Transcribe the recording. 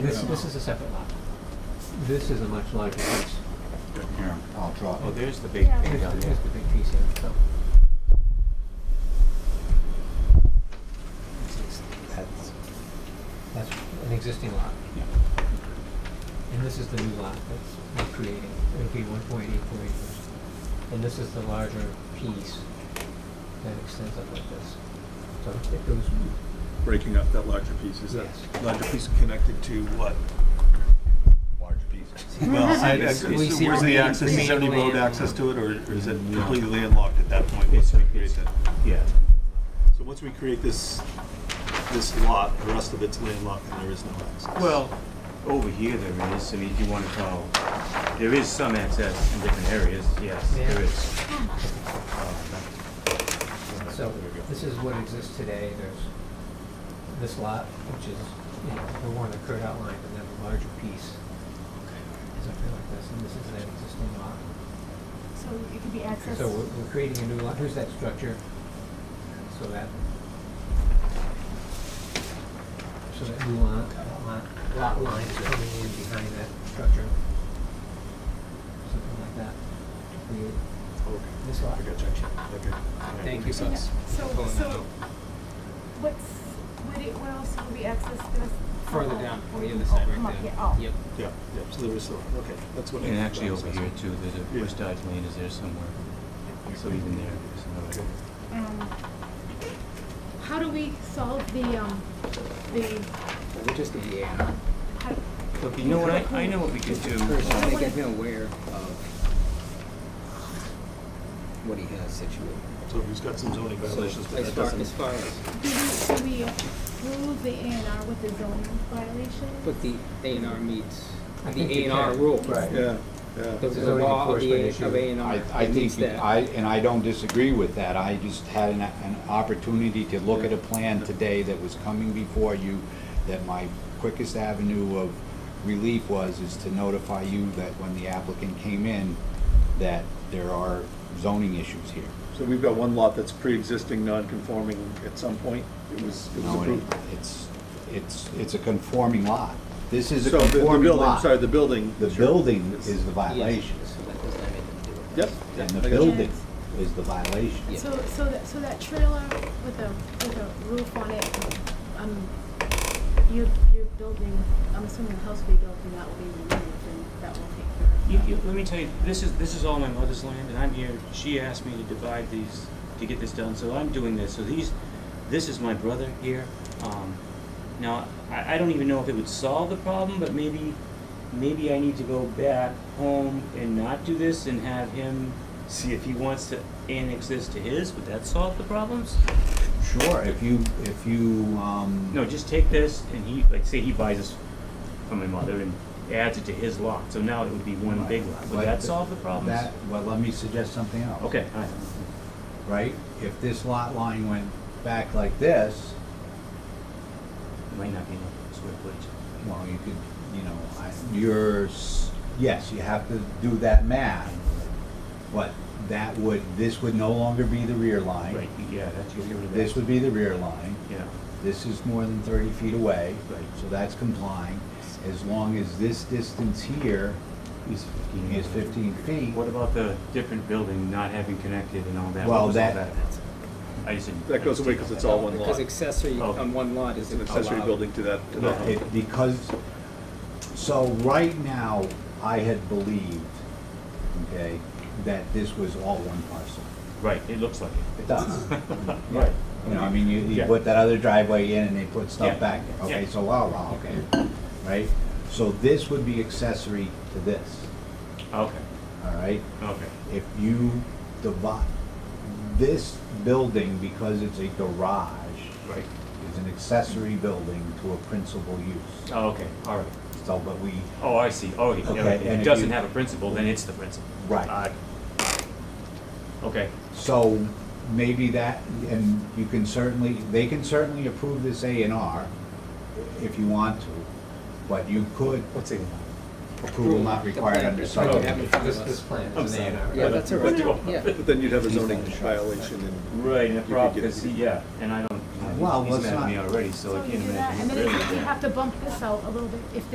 This, this is a separate lot. This is a much larger piece. Yeah, I'll draw Oh, it. there's the big Yeah. thing Here's down the there. here's the big piece here, so. That's- That's an existing lot. Yeah. And this is the new lot that's we're creating. It'll be one point eight four acres. And this is the larger piece that extends up like this. So it goes, breaking up that larger piece, is that Yes. larger piece connected to what? Large piece. Well, I, I- it's- we where's see the the access, is there any main road land. access to it, or or is it completely landlocked at that point? It's- once we create that? Yeah. So once we create this, this lot, the rest of it's landlocked and there is no access? Well, over here there is, I mean, if you want to call, there is some access in different areas, yes, Yeah. there is. so this is what exists today. There's this lot, which is, you know, the one that Kurt outlined, and then the larger piece Oh, is up here like this, and this is that existing lot. So it could be accessed. So we're, we're creating a new lot. Here's that structure. So that. So that new lot, that lot, lot line is coming in behind that structure. Something like that. to Create Okay. this lot. I got you. Okay. Yeah, Thank makes you. Yeah. sense. So, Pulling that so out. what's, what it, where else would be accessed? Gonna- Further oh, down, oh, on the other side oh, right come up there. here. Oh. Yep. Yeah, yeah, so there is still, okay, that's what. I And thought actually that was over here access. too, there's a Yeah. Bush Dodge Lane is there somewhere. So even there, there's Okay. another. Um, How do we solve the, um, the, We're just a yeah. how, Look, you know what, I, I know what we could do. First, I um, think I'm aware of what he has situated. So he's got some zoning So, violations, but that as far, doesn't. as far as, do we, do we approve the A and R with the zoning violation? but the A and R meets I the think A you and R can. rule. Right. Yeah, yeah. The It's a the zoning law of the A enforcement of A and I, R I meets think, you- that. I, and I don't disagree with that, I just had an, an opportunity to look at a plan today that was coming before you, that my quickest avenue of relief was, is to notify you that when the applicant came in, that there are zoning issues here. So we've got one lot that's pre-existing, non-conforming at some point, it was, it You was know, and approved. it's, it's, it's a conforming lot, this is a So the- the conforming building, lot. sorry, the building. The sure. building It's- is the Yes, violation, so that does not make them do it. Yep. and I got the you. building is the violation. Yeah. So, so that, so that trailer with a, with a roof on it, um, you, you're building, I'm assuming the house will be built and that will be removed and that will take care of. You, you, let me tell you, this is, this is all my mother's land, and I'm here, she asked me to divide these, to get this done, so I'm doing this, so these, this is my brother here, um, now, I, I don't even know if it would solve the problem, but maybe, maybe I need to go back home and not do this and have him see if he wants to annex this to his, would that solve the problems? Sure, if you, if you, um. No, just take this, and he, like, say he buys this from my mother and adds it to his lot, so now it would be one big lot, would Like that the- solve the problems? That, well, let me suggest something else. Okay, all right. Right, if this lot line went back like this, It might not be enough square footage. well, you could, you know, I, you're, s- yes, you have to do that math. But that would, this would no longer be the rear line. Right, yeah, that's, you're giving it This would be the rear line. Yeah, This is more than thirty feet away. Right. So that's complying, as long as this distance here he's fifteen. is fifteen feet. What about the different building not having connected and all that? Well, What was all that- I just didn't. That goes away because it's all one lot. Because accessory Oh. on one lot is It's an accessory allowed. building to that, uh, to No, that. home. it, because, so right now, I had believed, okay, that this was all one parcel. Right, it looks like it. It does. Right. You know, I mean, you, you Yeah. put that other driveway in and they put Yeah. stuff back there, okay, Yeah. so wow, wow, okay, right? So this would be accessory to this, Okay, all right? okay. If you divide, this building, because it's a garage, Right. is an accessory building to a principal use. Oh, okay, all right. So, but we, Oh, I see. Oh, yeah, Okay, yeah, if and if it doesn't you- have a principal, then it's the principal. Right. Uh, Okay, So maybe that, and you can certainly, they can certainly approve this A and R if you want to, but you could What's it? approval not required under That's what we have in Oh, subdivision. front of This, this us. plan I'm is an A and R. sorry. Yeah, that's all right, yeah. But then you'd have a zoning violation and. right, and the You could problem, get it. because, yeah, and I don't, Well, he's let's mad at not- me already, so I So you can't do that, imagine. and then really if we mad. have to bump this out a little bit, if